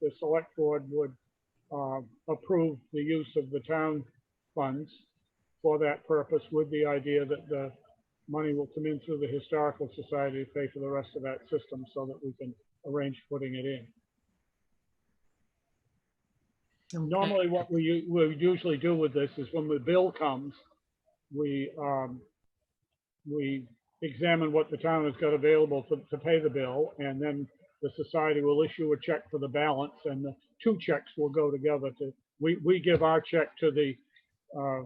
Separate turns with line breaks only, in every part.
the select board would um, approve the use of the town funds for that purpose with the idea that the money will come in through the Historical Society to pay for the rest of that system so that we can arrange putting it in. Normally, what we, u- we usually do with this is when the bill comes, we, um, we examine what the town has got available to, to pay the bill, and then the society will issue a check for the balance, and the two checks will go together to, we, we give our check to the, uh,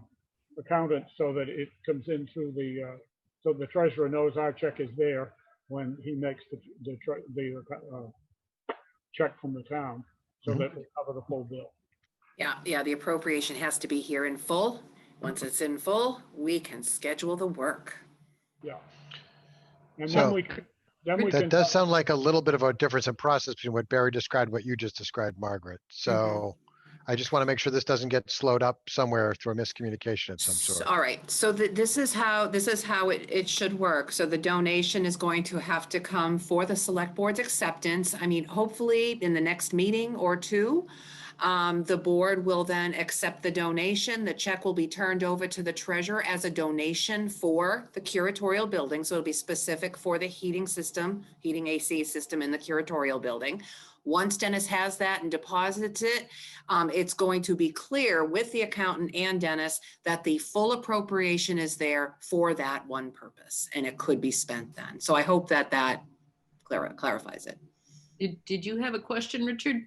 accountant so that it comes in through the, uh, so the treasurer knows our check is there when he makes the, the, tre- the, uh, check from the town, so that we cover the full bill.
Yeah, yeah, the appropriation has to be here in full. Once it's in full, we can schedule the work.
Yeah. And then
So,
we, c- then we can.
That does sound like a little bit of a difference in process between what Barry described, what you just described, Margaret. So I just want to make sure this doesn't get slowed up somewhere through a miscommunication of some
So-
sort.
All right, so th- this is how, this is how it, it should work. So the donation is going to have to come for the select board's acceptance. I mean, hopefully in the next meeting or two. Um, the board will then accept the donation. The check will be turned over to the treasurer as a donation for the curatorial building. So it'll be specific for the heating system, heating AC system in the curatorial building. Once Dennis has that and deposits it, um, it's going to be clear with the accountant and Dennis that the full appropriation is there for that one purpose and it could be spent then. So I hope that that clar- clarifies it.
Did, did you have a question, Richard?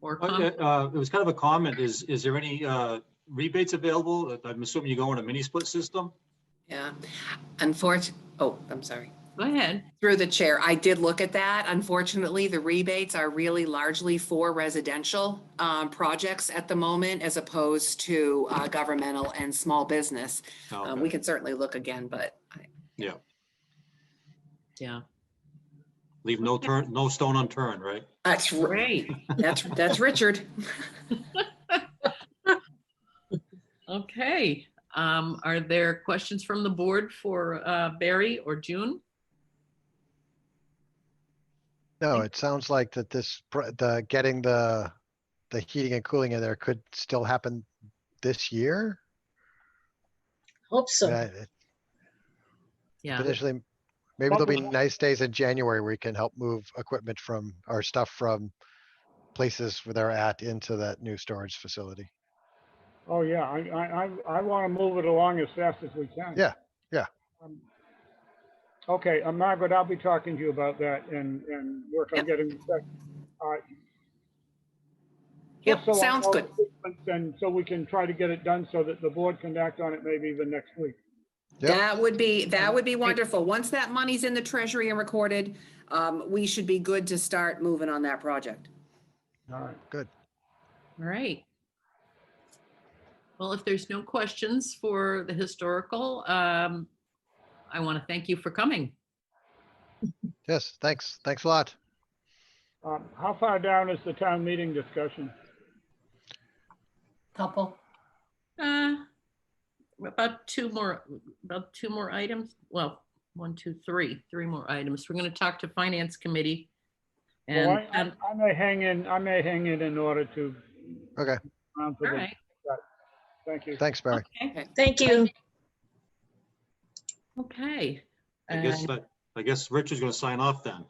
Or
Uh,
comment?
uh, It was kind of a comment. Is, is there any uh, rebates available? Uh, I'm assuming you go in a mini split system?
Yeah. Unfortunately, oh, I'm sorry.
Go ahead.
Through the chair, I did look at that. Unfortunately, the rebates are really largely for residential um, projects at the moment as opposed to uh, governmental and small business.
No,
Um,
okay.
We can certainly look again, but I-
Yeah.
Leave no turn, no stone unturned, right?
that's, r-
Great.
that's, that's Richard.
Okay. Um, are there questions from the board for, uh, Barry or June?
No, it sounds like that this, pr- the, getting the, the heating and cooling in there could still happen this year?
Hope so.
Yeah, it-
Yeah.
Potentially, maybe there'll be
Probably.
nice days in January where we can help move equipment from, or stuff from places where they're at into that new storage facility.
Oh, yeah, I, I, I, I want to move it along as fast as we can.
Yeah, yeah.
Um, Okay, uh, Margaret, I'll be talking to you about that and, and work on
Yep.
getting. the check. All right.
Yep,
Just so I
sounds
know
good.
the sequence And so we can try to get it done so that the board can act on it maybe even next week.
Yep.
That would be, that would be wonderful. Once that money's in the treasury and recorded, um, we should be good to start moving on that project.
All right.
All right. Well, if there's no questions for the historical, um, I want to thank you for coming.
Yes, thanks, thanks a lot.
Um, how far down is the town meeting discussion?
Couple.
Uh, about two more, about two more items. Well, one, two, three, three more items. We're going to talk to Finance Committee.
Well,
And,
I,
um,
I- I may hang in, I may hang in in order to.
Okay.
round for
all
the-
right.
Thank you.
Thanks, Barry.
Okay.
Thank you.
Okay.
I guess,
Uh,
that- I guess Richard's going to sign off then.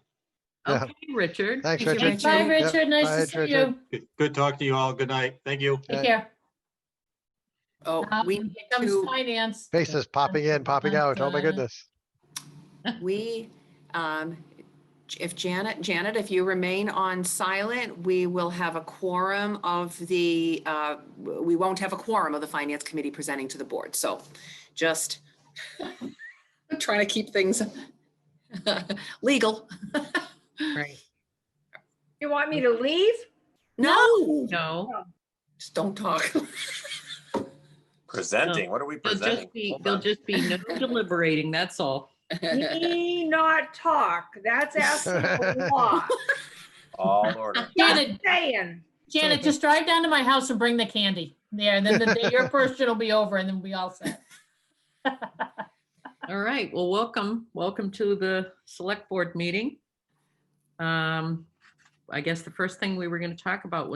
Yeah.
Okay, Richard.
Thanks,
Thank you,
Richard.
Richard.
Bye,
Yep.
Richard.
Bye,
Nice to see
Richard.
you.
Good- Good talk to you all. Good night. Thank you.
Yeah.
Take care.
Oh,
Um,
we,
Here
need
comes
to-
finance.
Faces popping in, popping out. Oh my
Uh,
goodness.
we, um, if Janet, Janet, if you remain on silent, we will have a quorum of the, uh, we won't have a quorum of the finance committee presenting to the board. So just trying to keep things legal.
Right.
You want me to leave?
No,
No,
just don't talk.
Presenting, what are we
there'll
presenting?
just be,
Hold
there'll
on.
just be no deliberating, that's all.
Me not talk. That's asking a lot.
All order.
Just
Janet,
saying.
Janet, just drive down to my house and bring the candy. There, and then the day your portion will be over and then we all set.
All right, well, welcome, welcome to the select board meeting. Um, I guess the first thing we were going to talk about was.